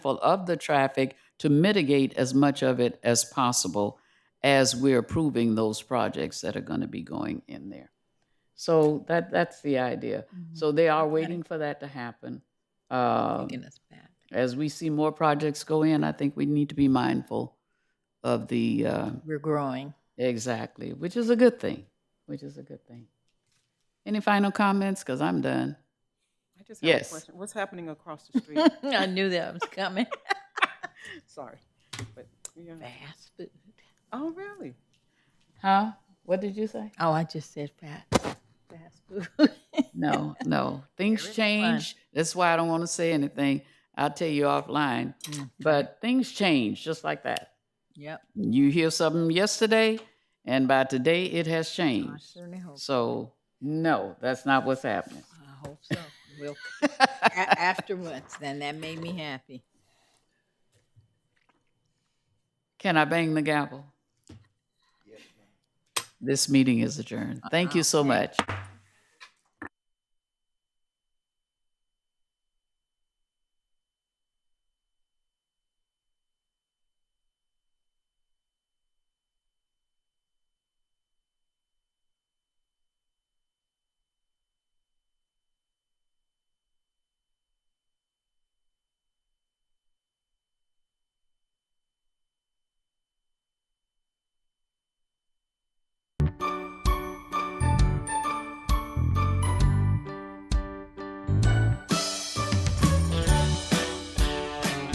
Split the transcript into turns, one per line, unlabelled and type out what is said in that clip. mindful of the traffic to mitigate as much of it as possible as we're approving those projects that are going to be going in there. So that, that's the idea. So they are waiting for that to happen. Uh,
Taking us back.
As we see more projects go in, I think we need to be mindful of the, uh,
We're growing.
exactly, which is a good thing, which is a good thing. Any final comments? Because I'm done.
I just have a
Yes.
question. What's happening across the street?
I knew that was coming.
Sorry. But, yeah.
Fast food.
Oh, really?
Huh? What did you say?
Oh, I just said fast, fast food.
No, no. Things
There is one.
change. That's why I don't want to say anything. I'll tell you offline.
Mm.
But things change just like that.
Yep.
You hear something yesterday, and by today it has
I
changed.
certainly hope.
So, no, that's not what's happening.
I hope so. We'll, a- afterwards, then that made me happy.
Can I bang the
Uh-uh.
gavel? This meeting is adjourned. Thank you so much.